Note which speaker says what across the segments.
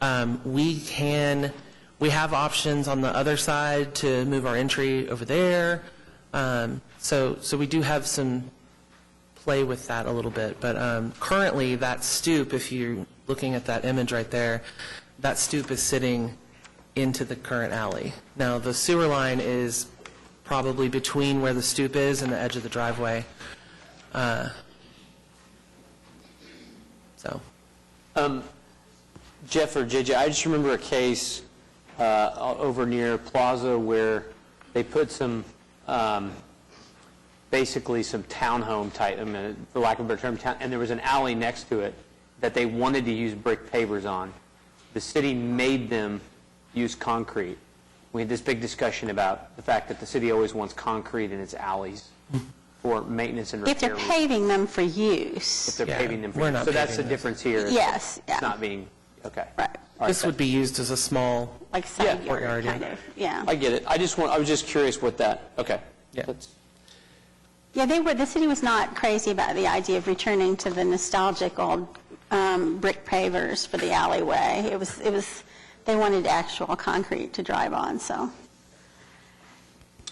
Speaker 1: Um, We can, we have options on the other side to move our entry over there. Um, So, so we do have some play with that a little bit. But um, currently, that stoop, if you're looking at that image right there, that stoop is sitting into the current alley. Now, the sewer line is probably between where the stoop is and the edge of the driveway. Uh, So,
Speaker 2: Um, Jeff or JJ, I just remember a case uh, o- over near Plaza where they put some, um, basically some townhome type, I mean, for lack of a better term, town- and there was an alley next to it that they wanted to use brick pavers on. The city made them use concrete. We had this big discussion about the fact that the city always wants concrete in its alleys for maintenance and repair.
Speaker 3: If they're
Speaker 2: reasons.
Speaker 3: paving them for
Speaker 2: If
Speaker 3: use,
Speaker 2: they're
Speaker 1: Yeah,
Speaker 2: paving them. for-
Speaker 1: we're not
Speaker 2: So that's the
Speaker 1: paving those.
Speaker 2: difference here. is
Speaker 3: yes,
Speaker 2: It's
Speaker 3: yeah,
Speaker 2: not being, okay.
Speaker 3: right,
Speaker 2: All right,
Speaker 1: this would be used as a small,
Speaker 3: like
Speaker 2: Yeah.
Speaker 3: side yard,
Speaker 1: Courtyard, yeah.
Speaker 3: kind of, yeah.
Speaker 2: I get it. I just want, I was just curious what that, okay.
Speaker 1: Yeah.
Speaker 2: That's-
Speaker 3: Yeah, they were, the city was not crazy about the idea of returning to the nostalgic old um, brick pavers for the alleyway. It was, it was, they wanted actual concrete to drive on, so.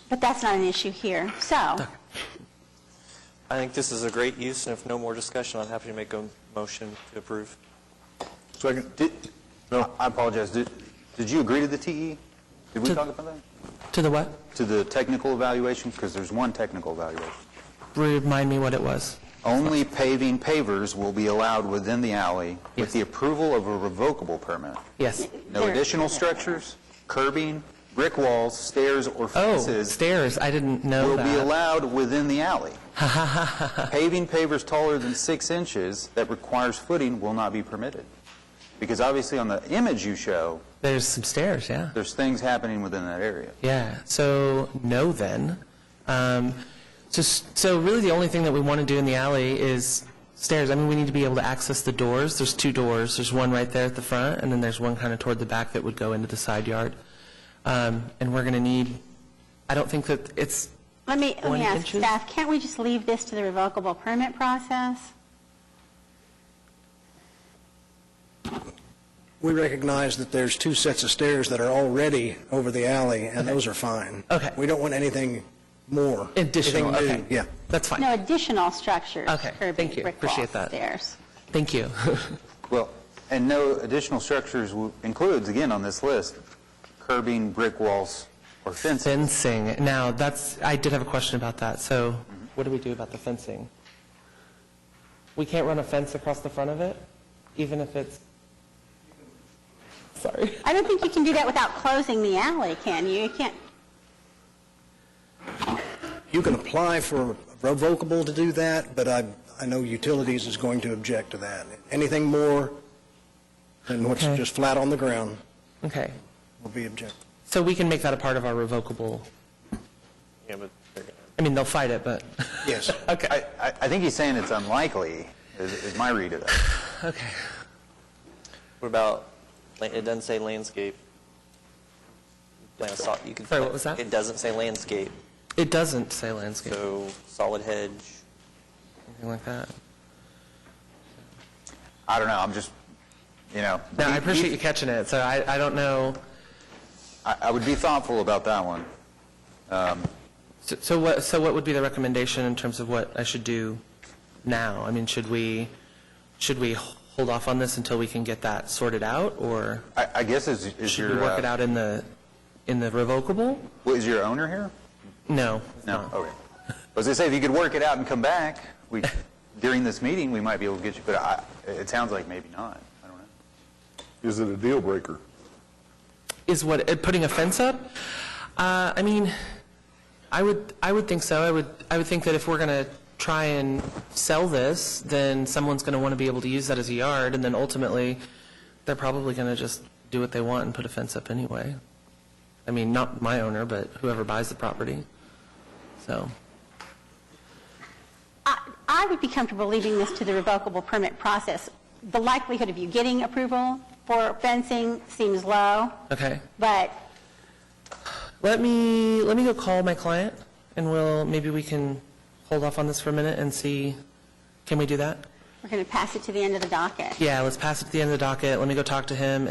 Speaker 3: But that's not an issue here, so,
Speaker 4: I think this is a great use, and if no more discussion, I'm happy to make a motion to approve.
Speaker 5: Second. No, I apologize. Did did you agree to the TE? Did we
Speaker 1: To-
Speaker 5: talk about that?
Speaker 1: to the what?
Speaker 5: To the technical evaluation? Because there's one technical evaluation.
Speaker 1: Remind me what it was.
Speaker 5: Only paving pavers will be allowed within the alley
Speaker 1: Yes.
Speaker 5: with the approval of a revocable permit.
Speaker 1: Yes.
Speaker 5: No
Speaker 3: There-
Speaker 5: additional structures, curbing, brick walls, stairs, or
Speaker 1: Oh,
Speaker 5: fences
Speaker 1: stairs, I didn't know
Speaker 5: will be
Speaker 1: that.
Speaker 5: allowed within the alley. Paving pavers taller than six inches that requires footing will not be permitted. Because obviously, on the image you show,
Speaker 1: There's some stairs, yeah.
Speaker 5: there's things happening within that area.
Speaker 1: Yeah, so no then. Um, so, so really the only thing that we want to do in the alley is stairs. I mean, we need to be able to access the doors. There's two doors. There's one right there at the front, and then there's one kind of toward the back that would go into the side yard. Um, and we're going to need, I don't think that it's,
Speaker 3: let me, let
Speaker 1: One
Speaker 3: me ask
Speaker 1: inches?
Speaker 3: staff, can't we just leave this to the revocable permit process?
Speaker 6: We recognize that there's two sets of stairs that are already over the alley, and those are fine.
Speaker 1: Okay.
Speaker 6: We don't want anything more.
Speaker 1: Additional,
Speaker 6: Anything
Speaker 1: okay.
Speaker 6: new, yeah.
Speaker 1: that's fine.
Speaker 3: No additional structures,
Speaker 1: Okay,
Speaker 3: curbing,
Speaker 1: thank you.
Speaker 3: brick walls,
Speaker 1: Appreciate that.
Speaker 3: stairs.
Speaker 1: Thank you.
Speaker 5: Well, and no additional structures will- includes, again, on this list, curbing, brick walls, or fencing.
Speaker 1: fencing. Now, that's, I did have a question about that. So what do we do about the fencing? We can't run a fence across the front of it, even if it's, sorry.
Speaker 3: I don't think you can do that without closing the alley, can you? You can't,
Speaker 6: You can apply for revocable to do that, but I, I know utilities is going to object to that. Anything more than what's
Speaker 1: Okay.
Speaker 6: just flat on the ground
Speaker 1: Okay.
Speaker 6: will be objected.
Speaker 1: So we can make that a part of our revocable,
Speaker 4: Yeah, but they're gonna-
Speaker 1: I mean, they'll fight it, but,
Speaker 6: Yes.
Speaker 1: okay,
Speaker 5: I, I I think he's saying it's unlikely, is is my read of that.
Speaker 1: okay.
Speaker 4: What about, la- it doesn't say landscape. Plant a sol- you could-
Speaker 1: Sorry, what was that?
Speaker 4: It doesn't say landscape,
Speaker 1: It doesn't say landscape,
Speaker 4: so solid hedge.
Speaker 1: anything like that.
Speaker 5: I don't know, I'm just, you know.
Speaker 1: No, I
Speaker 5: be-
Speaker 1: appreciate
Speaker 5: be-
Speaker 1: you catching it, so I, I don't know,
Speaker 5: I I would be thoughtful about that one.
Speaker 1: so- so what, so what would be the recommendation in terms of what I should do now? I mean, should we, should we hold off on this until we can get that sorted out, or
Speaker 5: I I guess is is
Speaker 1: should we
Speaker 5: your,
Speaker 1: work it
Speaker 5: uh,
Speaker 1: out in the, in the revocable?
Speaker 5: what, is your owner here?
Speaker 1: No.
Speaker 5: No, okay. I was going to say, if you could work it out and come back, we, during this meeting, we might be able to get you, but I, it sounds like maybe not. I don't know.
Speaker 7: Is it a deal breaker?
Speaker 1: is what uh, putting a fence up. Uh, I mean, I would I would think so. I would I would think that if we're going to try and sell this, then someone's going to want to be able to use that as a yard, and then ultimately, they're probably going to just do what they want and put a fence up anyway. I mean, not my owner, but whoever buys the property. So
Speaker 3: I I would be comfortable leaving this to the revocable permit process. The likelihood of you getting approval for fencing seems low,
Speaker 1: okay,
Speaker 3: but
Speaker 1: let me let me go call my client, and we'll maybe we can hold off on this for a minute and see. Can we do that?
Speaker 3: we're going to pass it to the end of the docket.
Speaker 1: Yeah, let's pass it to the end of the docket. Let me go talk to him,